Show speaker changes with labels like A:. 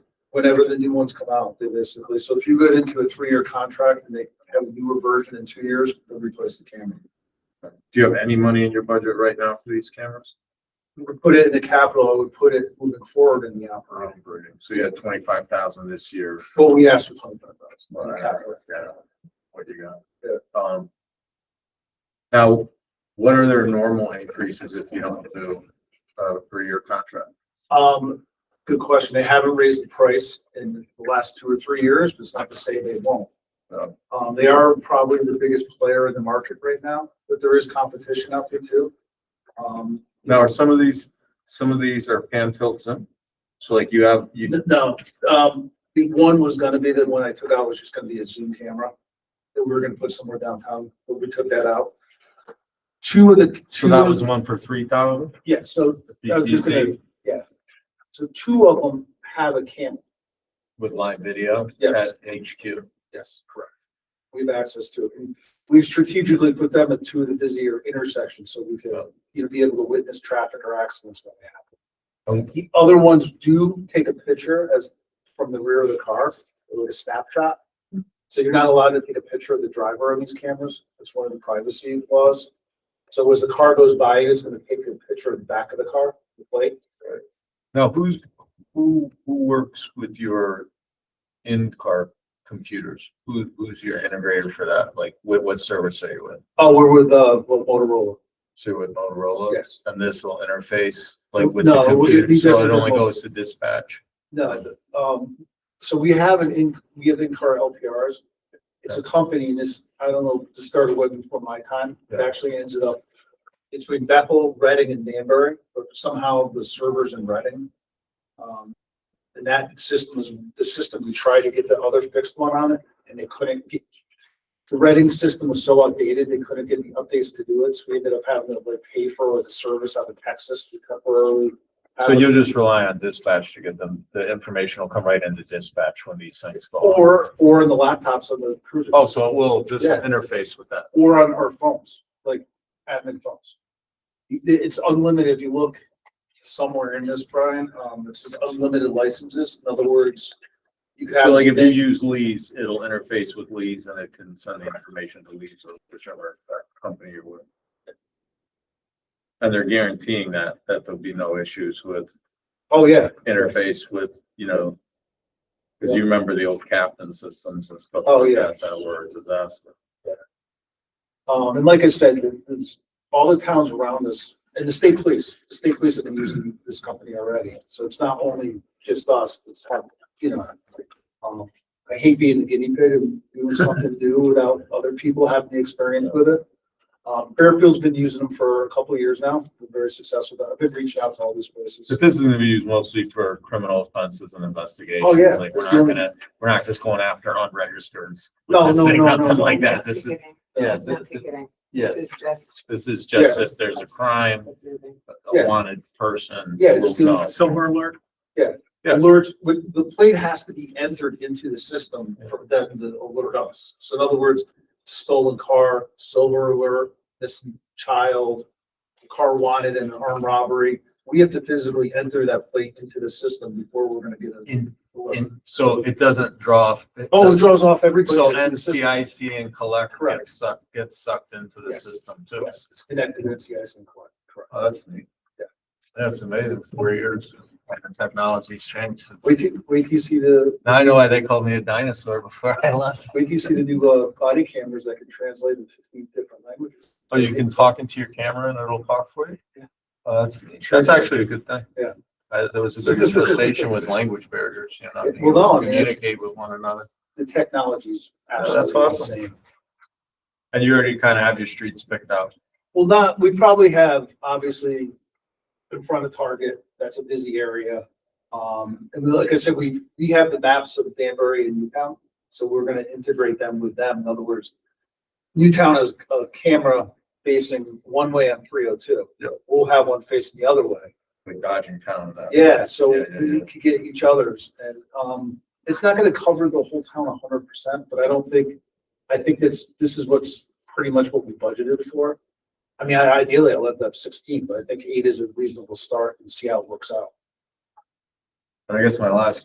A: whenever the new ones come out, they basically, so if you go into a three-year contract and they have a newer version in two years, they'll replace the camera.
B: Do you have any money in your budget right now for these cameras?
A: We would put it in the capital, I would put it moving forward in the operating.
B: Operating. Um, So you had twenty-five thousand this year.
A: Well, we asked for twenty-five
B: but I
A: thousand.
B: haven't looked at it. What you got? Um. Now, what are their normal increases if you don't do a three-year contract?
A: Um, good question. They haven't raised the price in the last two or three years, but it's not to say they won't.
B: No.
A: Um, they are probably the biggest player in the market right now, but there is competition out there too. Um,
B: Now, are some of these, some of these are pan tilts in? So like you have, you,
A: no, um, the one was gonna be the one I took out was just gonna be a Zoom camera that we were gonna put somewhere downtown, but we took that out. Two of the,
B: so
A: two,
B: that was
A: of-
B: the one for three thousand?
A: yeah, so I was just gonna- Yeah. So two of them have a camera.
B: With live video?
A: Yes.
B: At HQ.
A: Yes, correct. We have access to it. And We've strategically put them at two of the busier intersections, so we could, you know, be able to witness traffic or accidents when they happen.
B: Um,
A: The other ones do take a picture as, from the rear of the car, like a snapshot. So you're not allowed to take a picture of the driver on these cameras. That's one of the privacy laws. So as the car goes by, it's gonna take a picture of the back of the car, the plate.
B: Now, who's, who, who works with your in-car computers? Who, who's your integrator for that? Like, what, what service are you with?
A: Oh, we're with, uh, Motorola.
B: So you're with Motorola?
A: Yes.
B: And this will interface like with the
A: No, it would- it'd
B: computer,
A: be
B: so it
A: different
B: only
A: than what-
B: goes to dispatch.
A: No, the- um, so we have an in, we have in-car LPRs. It's a company, and this, I don't know, this started way before my time, it
B: Yeah.
A: actually ends up between Bethel, Reading, and Danbury, but somehow the servers in Reading. Um, and that system is, the system, we tried to get the other fixed one on it, and they couldn't get, the Reading system was so outdated, they couldn't get the updates to do it, so we ended up having to like pay for the service out of Texas to temporarily. have
B: So
A: it.
B: you'll just rely on dispatch to get them, the information will come right into dispatch when these things go. on.
A: Or, or in the laptops on the cruiser,
B: Oh, so it will just
A: Yeah.
B: interface with that.
A: or on our phones, like admin phones. It- It's unlimited. If you look somewhere in this, Brian, um, it says unlimited licenses. In other words, you could
B: So
A: have.
B: like if you use Lee's, it'll interface with Lee's and it can send the information to Lee's or whichever company you're with. And they're guaranteeing that, that there'll be no issues with
A: Oh, yeah.
B: interface with, you know, because you remember the old captain systems and stuff
A: Oh,
B: like
A: yeah.
B: that, that were a disaster.
A: Um, and like I said, it- it's all the towns around us and the state police, the state police have been using this company already. So it's not only just us, it's have, you know, um, I hate being a guinea pig and doing something new without other people having the experience with it. Um, Fairfield's been using them for a couple of years now. They're very successful. I've been reaching out to all these places.
B: But this is gonna be used mostly for criminal offenses and investigations.
A: Oh, yeah.
B: Like,
A: That's
B: we're
A: the
B: not
A: only-
B: gonna, we're not just going after unregistered.
A: No, no,
B: witnessing,
A: no, no,
B: Nothing
A: no.
B: like that. This is,
C: Ticketing.
B: yeah,
C: It's not
B: this-
C: ticketing.
B: yeah,
C: This is just
B: this is just if there's a crime,
C: observing.
B: a
A: Yeah.
B: wanted person.
A: Yeah, just
B: will
A: do-
B: know.
A: Silver
B: alert? Yeah.
A: Alert, with- the plate has to be entered into the system for them to alert us. So in other words, stolen car, silver alert, missing child, car wanted and armed robbery. We have to physically enter that plate into the system before we're gonna get a.
B: And, and so it doesn't draw. it
A: Oh, it
B: doesn't-
A: draws off every. plate
B: So
A: that's in the system.
B: NCIC and collect
A: Correct.
B: get sucked, get sucked into the
A: Yes.
B: system too.
A: Yes, it's connected to NCIS and collect, correct.
B: Oh, that's neat.
A: Yeah.
B: That's amazing, four years, and the technology's changed since.
A: Wait, till- wait, till you see the,
B: Now I know why they called me a dinosaur before I left.
A: wait, till you see the new uh, body cameras that can translate in fifteen different languages.
B: Oh, you can talk into your camera and it'll talk for you?
A: Yeah.
B: Oh, that's, neat. that's actually a good thing.
A: Yeah.
B: Uh, there was a good conversation with language barriers, you know, not being
A: Well, no,
B: able
A: I
B: to
A: mean, it's-
B: communicate with one another.
A: The technology's
B: that's
A: absolutely
B: awesome.
A: insane.
B: And you already kind of have your streets picked out.
A: Well, not, we probably have, obviously, in front of Target, that's a busy area. Um, and like I said, we, we have the maps of Danbury and Newtown, so we're gonna integrate them with them. In other words, Newtown has a camera facing one way on three oh two.
B: Yep.
A: We'll have one facing the other way.
B: with Dodging Town. that-
A: Yeah, so
B: Yeah, yeah,
A: we
B: yeah.
A: could get each other's and, um, it's not gonna cover the whole town hundred percent, but I don't think, I think that's, this is what's pretty much what we budgeted for. I mean, I- ideally I left up sixteen, but I think eight is a reasonable start and see how it works out.
B: And I guess my last